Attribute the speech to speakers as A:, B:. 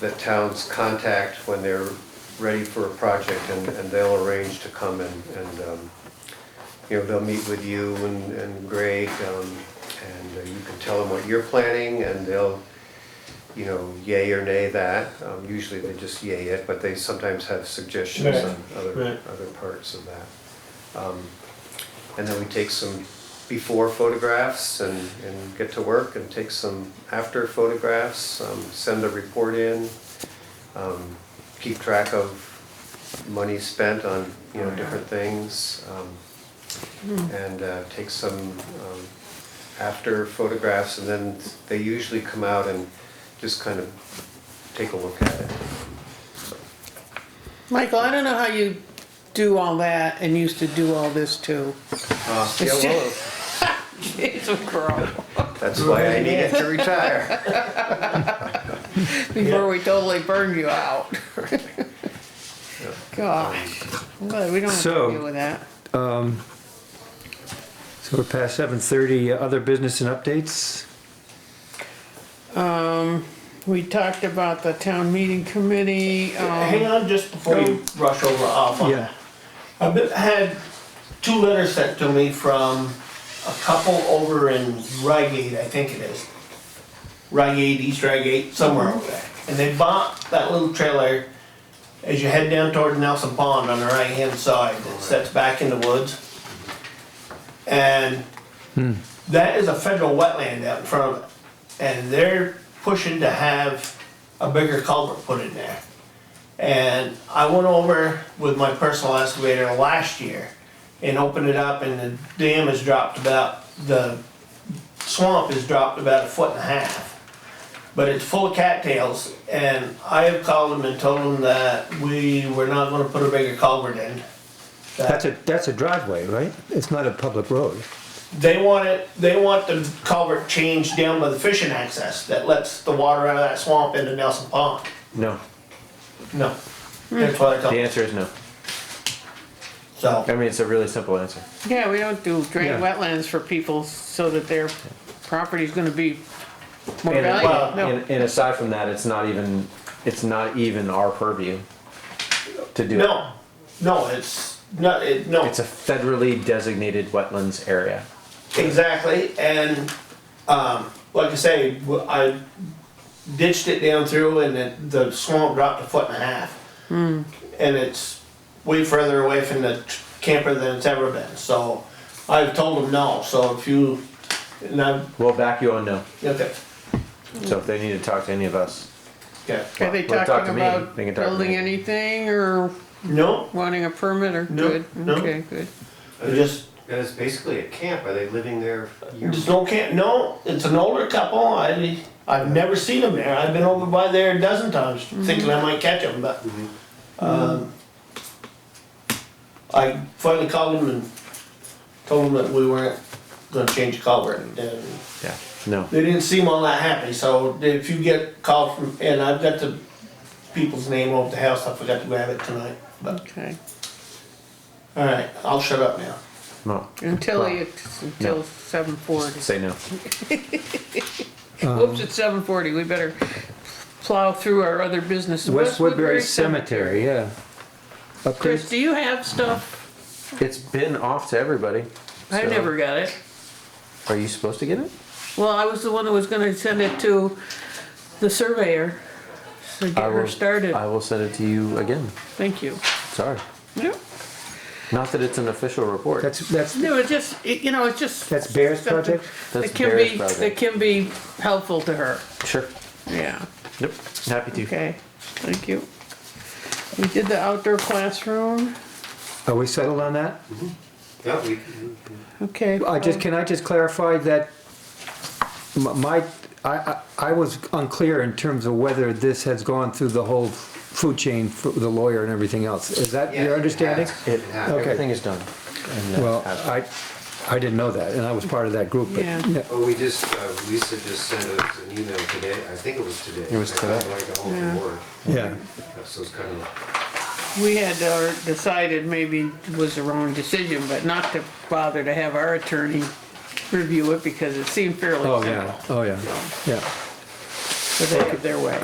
A: that towns contact when they're ready for a project and, and they'll arrange to come and, and, um, you know, they'll meet with you and, and Greg, um, and uh, you can tell them what you're planning and they'll, you know, yay or nay that. Um, usually they just yay it, but they sometimes have suggestions on other,
B: Right.
A: other parts of that. Um, and then we take some before photographs and, and get to work and take some after photographs, um, send a report in, um, keep track of money spent on, you know, different things. um, And, uh, take some, um, after photographs and then they usually come out and just kind of take a look at it.
C: Michael, I don't know how you do all that and used to do all this too.
A: Uh, yeah, well,
C: It's a girl.
A: that's why I needed to retire.
C: Before we totally burned you out. Gosh, I'm glad we don't have to
D: So-
C: deal with that.
D: So we're past seven thirty, uh, other business and updates?
C: We talked about the town meeting committee, um,
B: Hang on, just before you rush over off on that. I've been- had two letters sent to me from a couple over in Rygate, I think it is. Rygate, East Rygate, somewhere over there. And they bought that little trailer as you head down toward Nelson Pond on the right-hand side that sets back in the woods. And that is a federal wetland out in front of it. And they're pushing to have a bigger culvert put in there. And I went over with my personal excavator last year and opened it up and the dam has dropped about, the swamp has dropped about a foot and a half. But it's full of cattails and I have called them and told them that we were not gonna put a bigger culvert in.
D: That's a, that's a driveway, right? It's not a public road.
B: They want it, they want the culvert changed down by the fishing access that lets the water out of that swamp into Nelson Pond.
E: No,
B: No, that's what I told
E: the
B: them,
E: answer is no.
B: so.
E: I mean, it's a really simple answer.
C: yeah, we don't do drain
D: Yeah.
C: wetlands for people so that their property's gonna be more
E: And,
B: well,
C: valuable, no.
E: and, and aside from that, it's not even, it's not even our purview to do it.
B: No, no, it's not, it, no,
E: It's a federally designated wetlands area.
B: exactly, and, um, like I say, w- I ditched it down through and it, the swamp dropped a foot and a half. And it's way further away from the t- camper than it's ever been, so I've told them no, so if you, and I'm,
E: We'll back you on no.
B: okay,
E: So if they need to talk to any of us,
B: okay.
C: Are they
E: Well, talk to
C: talking
E: me.
C: about
E: They can talk to
C: building
E: me.
C: anything or
B: No,
C: wanting a permit or
B: No,
C: good?
B: no.
C: Okay, good.
B: I just,
A: And it's basically a camp, are they living there? year-
B: There's no camp, no, it's an older couple, I, I've never seen them there, I've been over by there a dozen times, thinking I might catch them, but, um, I finally called them and told them that we weren't gonna change color, and
E: yeah, no.
B: they didn't seem all that happy, so if you get called from, and I've got the people's name over the house, I forgot to grab it tonight, but,
C: Okay,
B: alright, I'll shut up now.
E: No.
C: until,
E: Well,
C: it's until
E: no.
C: seven forty.
E: Say no.
C: Whoops, it's seven forty, we better plow through our other business.
D: West Woodbury Cemetery, yeah.
C: Chris,
D: Updates?
C: do you have stuff?
E: It's been off to everybody.
C: I
E: so-
C: never got it.
E: Are you supposed to get it?
C: Well, I was the one that was gonna send it to the surveyor, so get
E: I
C: her
E: will-
C: started.
E: I will send it to you again.
C: Thank you.
E: Sorry.
C: Yeah.
E: Not that it's an official report.
D: That's, that's,
C: No, it just, it- you know, it's just.
D: That's Bear's
C: something
D: project?
E: That's
C: That can
E: Bear's
C: be,
E: project.
C: that can be helpful to her,
E: Sure.
C: yeah.
E: Yep. Happy to.
C: Okay, thank you. We did the outdoor classroom,
D: are we settled on that?
A: Yeah, we,
C: okay.
D: I just, can I just clarify that m- my, I, I, I was unclear in terms of whether this has gone through the whole food chain, for the lawyer and everything else. Is that
A: Yeah, it
D: your understanding?
A: has.
E: It,
D: Okay.
E: everything is done. And, uh,
D: Well,
E: have-
D: I, I didn't know that, and I was part of that group, but,
C: Yeah.
D: yeah.
A: oh, we just, uh, Lisa just sent us an email today, I think it was today.
E: It was
A: I got,
E: today.
A: Like a whole
C: Yeah.
A: reward,
D: yeah.
A: so it's kind of,
C: We had uh, decided maybe it was the wrong decision, but not to bother to have our attorney review it because it seemed fairly
D: Oh,
C: simple.
D: yeah, oh, yeah, yeah.
C: So they have their way.